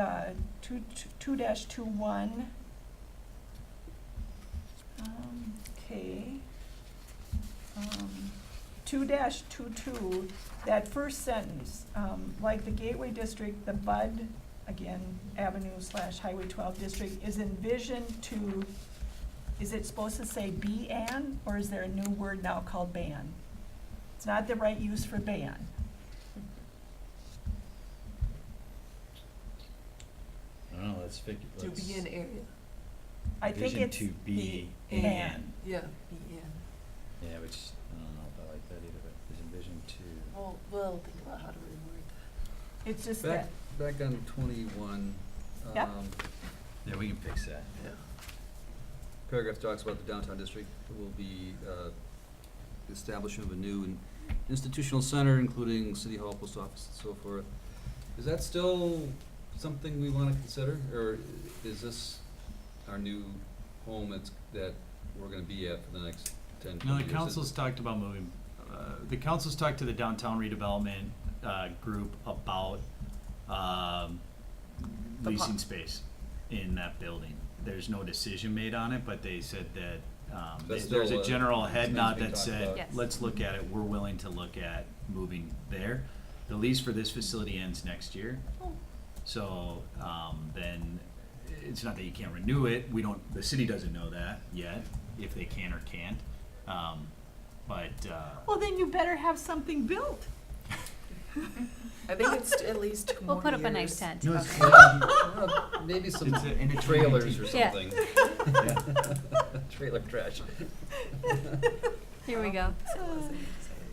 uh, two, two dash two one. Um, okay. Um, two dash two two, that first sentence, um, like the Gateway District, the Bud, again, Avenue slash Highway twelve district is envisioned to, is it supposed to say ban, or is there a new word now called ban? It's not the right use for ban. I don't know, let's fix, To let's. be an area, I think Vision it's to be the an. ban. yeah, be in. Yeah, which, I don't know if I like that either, but is envisioned to, Well, well, think about how to reword It's just Back, that, back on twenty-one, Yep. um, yeah, we can fix that. that, yeah. paragraph talks about the downtown district will be, uh, the establishment of a new in- institutional center, including city hall, post office, and so forth. Is that still something we wanna consider, or is this our new home that's, that we're gonna be at for the next ten, No, twenty the years? council's talked about moving, uh, the council's talked to the downtown redevelopment, uh, group about, um, The leasing pub. space in that building. There's no decision made on it, but they said that, um, That's there's still, a uh, general head something nod being that talked said, about. Yes. let's look at it, we're willing to look at moving there. The lease for this facility ends next year. So, um, then, it's not that you can't renew it, we don't, the city doesn't know that yet, if they can or can't. Um, but, uh, well, then you better have something built. I think it's t- at least two more We'll put up a years. nice tent. No, Okay. it's- Yeah, Maybe some It's a- and it's trailers or Yeah. something. Trailer trash. Here we go. So it wasn't exciting.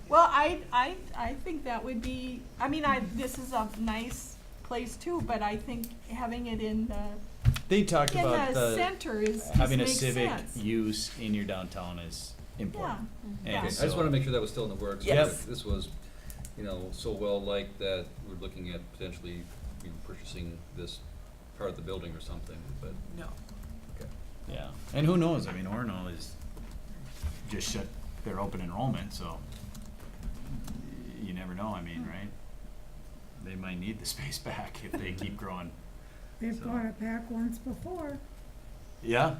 Well, I, I, I think that would be, I mean, I, this is a nice place too, but I think having it in the, they talked in about the the, uh, center is, just having a makes civic sense. use in your downtown is Yeah, important. Yeah. Okay, I just wanna make sure that was still in the works. Yep. because This was, you know, so well liked that we're looking at potentially, you know, purchasing this part of the building or something, but, No, okay. Yeah, and who knows, I mean, Orno is, just shut their open enrollment, so you never know, I mean, right? They might need the space back if they keep growing. They've So- bought it back once before. Yeah,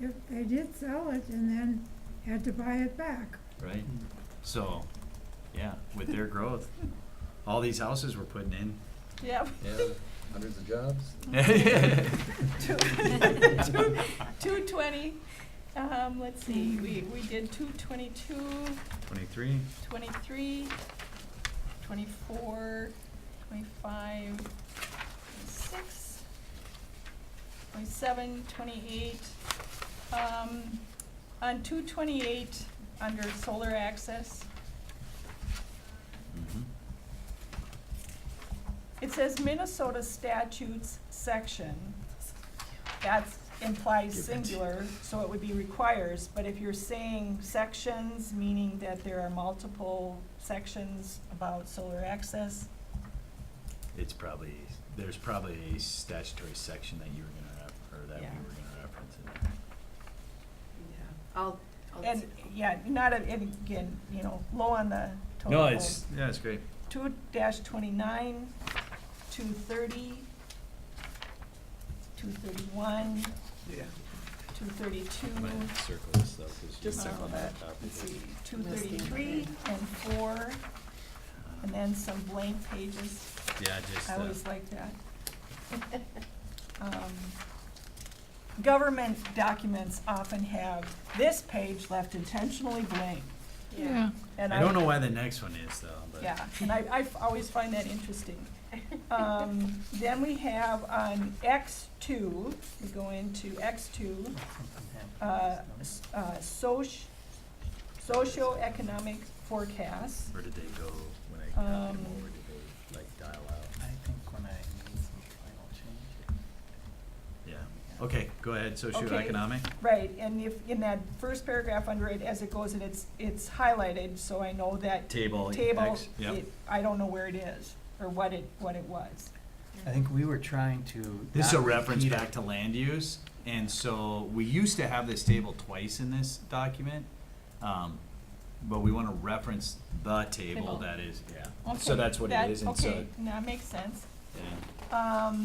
If they did sell it and then had to buy it back. right? So, yeah, with their growth, all these houses we're putting in. yeah. Yeah, hundreds of jobs. Two twenty, um, let's see, we, we did two twenty-two, Twenty-three, twenty-three, twenty-four, twenty-five, twenty-six, twenty-seven, twenty-eight. Um, on two twenty-eight, under solar access, mm-hmm. it says Minnesota statutes section. That implies Give it. singular, so it would be requires, but if you're saying sections, meaning that there are multiple sections about solar access, It's probably, there's probably a statutory section that you were gonna ref, or that we Yeah. were gonna reference in there. yeah, I'll, I'll. And, yeah, not, a- and again, you know, low on the total. No, it's, yeah, it's great. Two dash twenty-nine, two thirty, two thirty-one, Yeah. two thirty-two, I'm gonna circle this though, cause you Just might circle want that that. copy. let's see, two Missed the thirty-three and four, and then some blank pages. Yeah, just, I uh, always like that. Um, Government documents often have this page left intentionally blank. Yeah. and I don't know why the next one is though, but. Yeah, and I, I f- always find that interesting. Um, then we have on X two, we go into X two, uh, s- uh, soc- socioeconomic forecasts. Where did they go when I Um, copied them over? Did they like dial out? I think when I need some final change. Yeah. Okay, go ahead. Okay. Socioeconomic. Right, and if, in that first paragraph under it, as it goes, and it's, it's highlighted, so I know that Table. table, X, yep. it- I don't know where it is, or what it, what it was. I think we were trying to. This is a not reference repeat it. back to land use. And so we used to have this table twice in this document. Um, but we want to reference the table Table. that is, yeah. Okay, So that's what that- it is. And so, Okay, that makes sense. yeah. Um,